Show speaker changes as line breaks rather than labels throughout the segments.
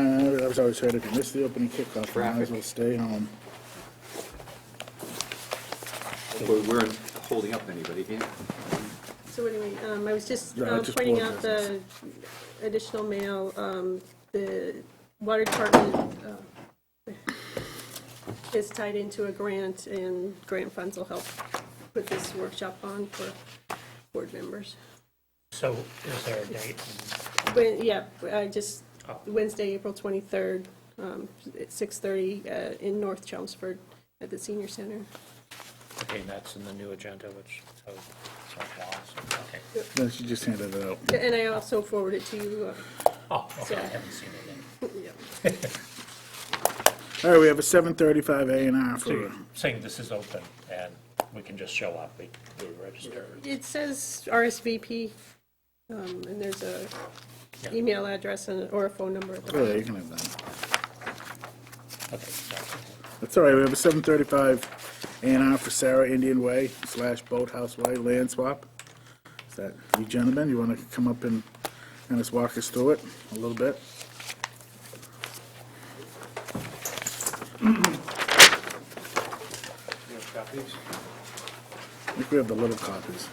I've always heard, if you miss the opening kickoff, you might as well stay home.
We weren't holding up anybody here.
So anyway, um, I was just
Yeah, I
um,
just
pointing
bought
out the
this.
additional mail, um, the water department uh, is tied into a grant, and grant funds will help put this workshop on for board members.
So is there a date?
But, yeah, I just,
Oh.
Wednesday, April 23rd, um, at 6:30 uh, in North Chelmsford at the senior center.
Okay, and that's in the new agenda, which, so, so, wow, so, okay.
Then she just handed it out.
And I also forwarded to you,
Oh, okay, I haven't seen it
uh,
yet.
yeah.
All right, we have a seven thirty-five A and R for,
Saying this is open and we can just show up, we, we register.
It says RSVP, um, and there's a
Yeah.
email address and, or a phone number. at
oh,
the bottom.
yeah, you can have that.
Okay, so-
That's all right, we have a seven thirty-five A and R for Sarah Indian Way slash Boathouse Way land swap. Is that you gentlemen, you wanna come up and, and just walk us through it a little bit? I think we have the little copies.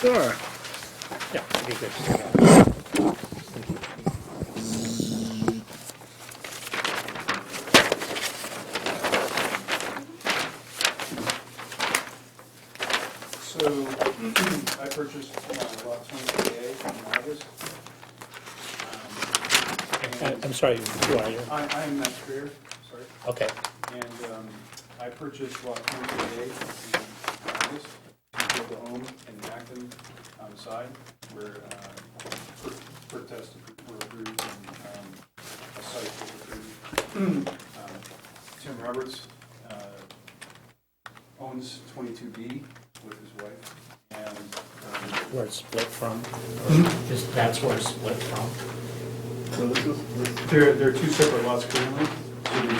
Sure.
yeah, it'd be good to see that.
So I purchased uh, lot 28A in August. Um,
I- Uh, I'm sorry, who are you?
I, I am Matt Spear, sorry,
Okay,
and um, I purchased lot 28A in August to build a home in Acton on the side where uh, per- per test were approved and um, a site was approved. Um, Tim Roberts uh, owns 22B with his wife, and um,
where it's split from, is, that's where it's split from?
So this is, there, there are two separate lots currently. So the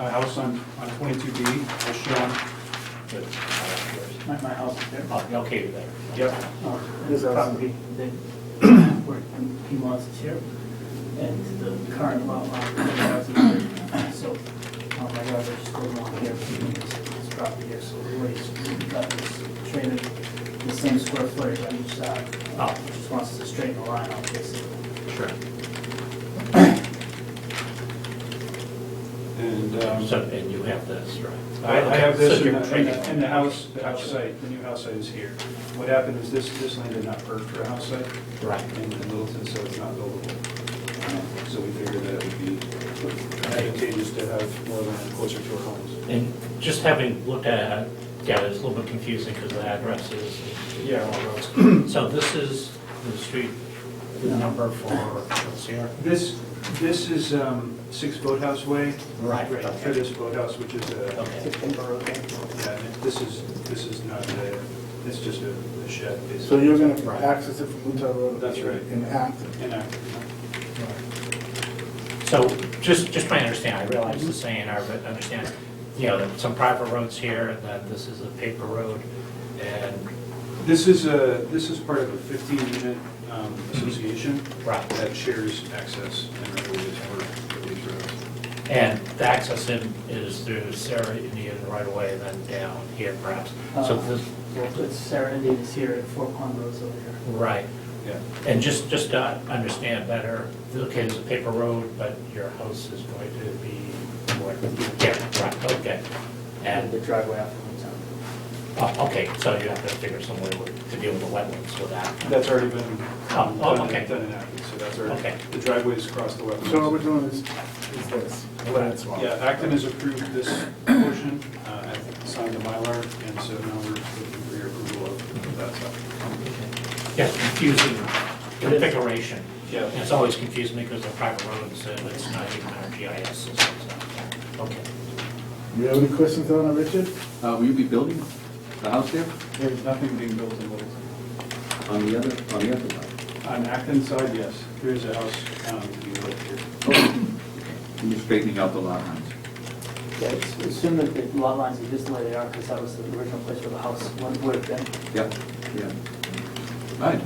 uh, house on, on 22B is shown,
Good.
my, my house is there.
Oh, Okay, there.
Yep.
Uh, This property that where he wants to share, and the current lot line is 1,000. So, um, my daughter still want here, this property here, so we always got this traded, the same square footage on each side. uh,
Oh.
Just wants to straighten the line out, basically.
Sure.
And, um,
So, and you have this, right?
I, I have this
So
in
you're
the, in
trading.
the- in the house, the house site, the new house site is here. What happened is this, this land did not perk for a house site.
Right.
In in Littleton, so it's not buildable. Um, So we figured that it would be advantageous to have more land closer to our homes.
And just having looked at it, yeah, it's a little bit confusing because the addresses. and
Yeah.
all roads. So this is the street, the number for, let's see here.
This, this is um, Six Boathouse Way.
Right,
Right,
okay.
for this boathouse, which is a,
Okay,
yeah, this is, this is not a, it's just a a shed. It's-
So you're gonna access it from Utah Road?
That's right.
In Acton?
And uh, I-
so just, just trying to understand, I realize the saying, I but understand, you know, that some private roads here, and that this is a paper road, and,
This is a, this is part of a 15-unit um, association.
Right.
That shares access and right-of-ways for- for these roads.
and the access in is through Sarah Indian right away, then down here perhaps. So
Uh,
this,
Well, it's Sarah Indian's here, and Four Pond Road's over here.
right,
Yeah.
And just, just to understand better, okay, there's a paper road, but your house is going to be what? Yeah, right, okay.
And the
And,
driveway out from the town.
oh, okay, so you have to figure some way with- to deal with the wetlands with that.
That's already been
Oh,
um,
oh,
done
okay.
and- done and acted, so that's
Okay.
already, the driveways across the wetlands.
So what we're doing is, is this, land swap.
Yeah, Acton has approved this portion, uh, and signed the Mylar, and so now we're looking for your approval of that stuff.
Yeah, confusing configuration.
Yeah.
And It's always confusing me because the private roads, and it's not even our GIS system, so, okay.
You have any questions on it, Richard?
Uh, Will you be building the house there
There's nothing being built in Littleton.
on the other, on the other side?
On Acton side, yes, there is a house um, to be built here.
You're just straightening out the lot lines.
Yeah, it's- assume that the lot lines are just the way they are, because that was the original place where the house would have been.
Yep, yeah. Right.